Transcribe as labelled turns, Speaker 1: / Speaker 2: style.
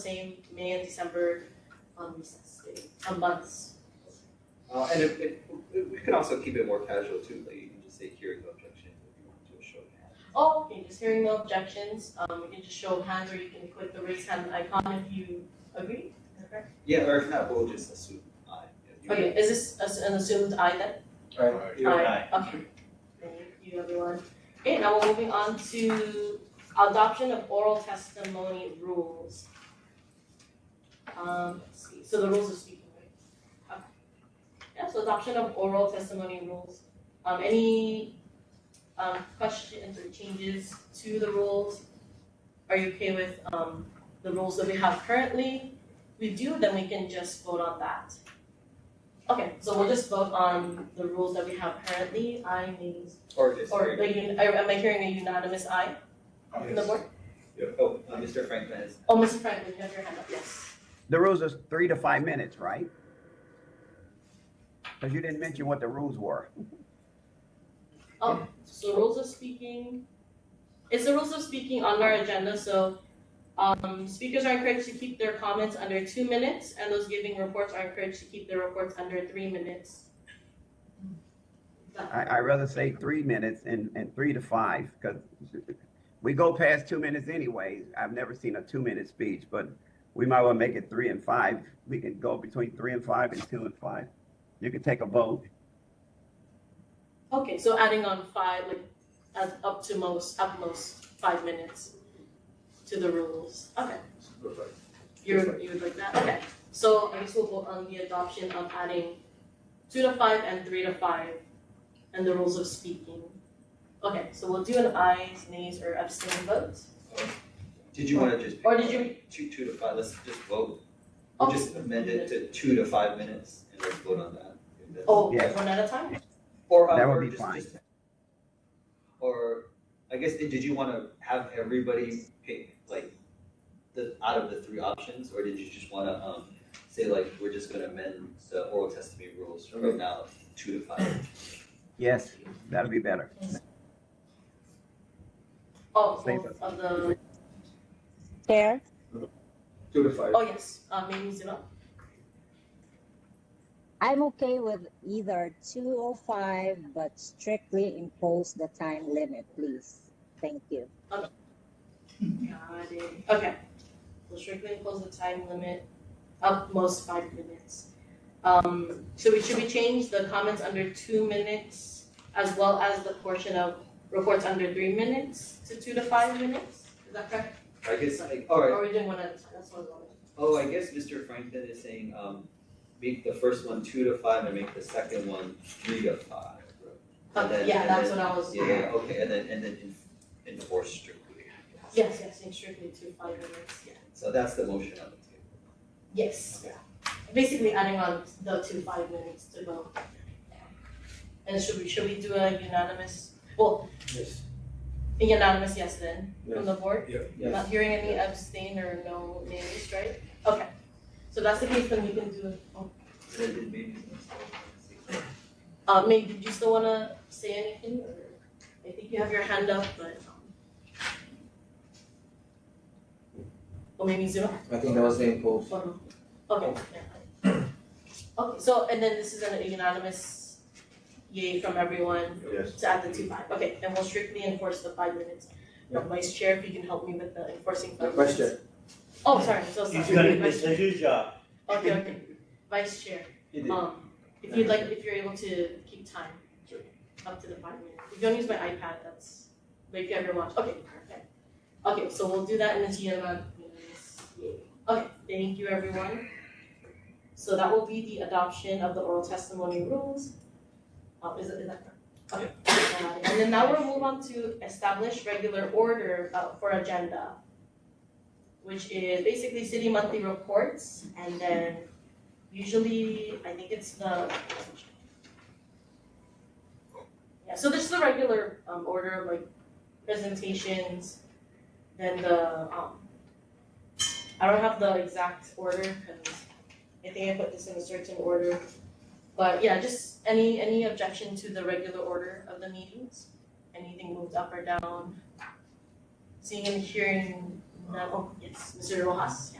Speaker 1: same May and December on recess day, on months.
Speaker 2: Uh, and if, if, we could also keep it more casual too, like you can just say hearing no objection if you want to a show of hands.
Speaker 1: Oh, okay, just hearing no objections, um, you can just show hands or you can click the raise hand icon if you agree, is that correct?
Speaker 2: Yeah, or if not, we'll just assume I.
Speaker 1: Okay, is this as- an assumed aye then?
Speaker 2: Right, you and I.
Speaker 1: Okay, thank you everyone. Okay, now we're moving on to adoption of oral testimony rules. Um, let's see, so the rules of speaking, right? Okay. Yeah, so adoption of oral testimony rules. Um, any um questions or changes to the rules? Are you okay with um the rules that we have currently? We do, then we can just vote on that. Okay, so we'll just vote on the rules that we have currently, I means,
Speaker 2: Or
Speaker 1: or,
Speaker 2: disagree.
Speaker 1: the un- I- am I hearing a unanimous aye from the board?
Speaker 2: Yeah. Oh, uh, Mr. Franklin has.
Speaker 1: Oh, Mr. Franklin, you have your hand up, yes.
Speaker 3: The rules is three to five minutes, right? Because you didn't mention what the rules were.
Speaker 1: Oh, so rules of speaking, it's the rules of speaking on our agenda, so, um, speakers are encouraged to keep their comments under two minutes, and those giving reports are encouraged to keep their reports under three minutes. That-
Speaker 3: I, I rather say three minutes and, and three to five, because we go past two minutes anyways. I've never seen a two-minute speech, but we might well make it three and five. We can go between three and five and two and five. You can take a vote.
Speaker 1: Okay, so adding on five, like, as up to most, at most, five minutes to the rules, okay. You're, you would like that, okay. So I guess we'll vote on the adoption of adding two to five and three to five and the rules of speaking. Okay, so we'll do an ayes, nays, or abstain vote.
Speaker 2: Did you wanna just? pick
Speaker 1: Or did
Speaker 2: one?
Speaker 1: you-
Speaker 2: Two, two to five, let's just vote. We'll
Speaker 1: Oh.
Speaker 2: just amend it to two to five minutes and let's vote on that. if that's-
Speaker 1: Oh,
Speaker 3: Yes.
Speaker 1: one at a time?
Speaker 2: Or, uh,
Speaker 3: That would
Speaker 2: or
Speaker 3: be
Speaker 2: just,
Speaker 3: fine.
Speaker 2: just. Or, I guess, did did you wanna have everybody pick, like, the, out of the three options, or did you just wanna, um, say like, we're just gonna amend the oral testimony rules from now, two to five?
Speaker 3: Yes, that'll be better.
Speaker 1: Oh,
Speaker 3: Same
Speaker 1: both of the,
Speaker 4: Chair,
Speaker 2: Two to five.
Speaker 1: oh yes, uh, maybe Zima.
Speaker 4: I'm okay with either 205, but strictly impose the time limit, please. Thank you.
Speaker 1: Got it. Okay. We'll strictly impose the time limit of most five minutes. Um, so we should we change the comments under two minutes as well as the portion of reports under three minutes to two to five minutes? Is that correct?
Speaker 2: I guess, like, alright,
Speaker 1: Or are we doing one at a time? That's what I'm
Speaker 2: oh, I guess Mr. Franklin is saying, um, make the first one two to five and make the second one three to five.
Speaker 1: going
Speaker 2: And
Speaker 1: with.
Speaker 2: then-
Speaker 1: Oh, Yeah,
Speaker 2: and
Speaker 1: that's
Speaker 2: then-
Speaker 1: what I was.
Speaker 2: Yeah, yeah, okay, and then, and then en- enforce strictly.
Speaker 1: Yes, yes, and strictly to five minutes, yeah.
Speaker 2: So that's the motion on the table.
Speaker 1: Yes. Basically adding on the two five minutes to go. And should we, should we do a unanimous, well,
Speaker 5: Yes.
Speaker 1: a unanimous yes then from the board?
Speaker 2: Yes.
Speaker 1: Not hearing any abstain or no nays, right? Okay, so that's the case, then we can do, oh,
Speaker 2: Then it may be-
Speaker 1: uh, May, did you still wanna say anything, or, I think you have your hand up, but, um. Or maybe zero,
Speaker 5: I think that was the impulse.
Speaker 1: or no, okay, yeah. Okay, so, and then this is a unanimous yay from everyone
Speaker 5: Yes.
Speaker 1: to add the two five, okay, and we'll strictly enforce the five minutes. Now, Vice Chair, if you can help me with the enforcing
Speaker 5: The
Speaker 1: five minutes.
Speaker 5: question,
Speaker 1: Oh, sorry, so sorry.
Speaker 6: He's gonna
Speaker 1: Vice
Speaker 6: miss
Speaker 1: Chair.
Speaker 6: his job.
Speaker 1: Okay, okay, Vice Chair.
Speaker 5: it is.
Speaker 1: Um, if you'd like, if you're able to keep time,
Speaker 5: Sure.
Speaker 1: up to the five minutes. If you don't use my iPad, that's, but if you have your watch, okay, perfect. Okay, so we'll do that in the GMM. Okay, thank you, everyone. So that will be the adoption of the oral testimony rules. Uh, is it, is that correct? Okay. Uh, And then now we'll move on to establish regular order, uh, for agenda, which is basically city monthly reports and then usually I think it's the yeah, so there's the regular um order of like presentations, then the um I don't have the exact order because I think I put this in a certain order. But yeah, just any any objection to the regular order of the meetings? Anything moved up or down? Seeing and hearing none, oh yes, Mr. Rojas, yeah.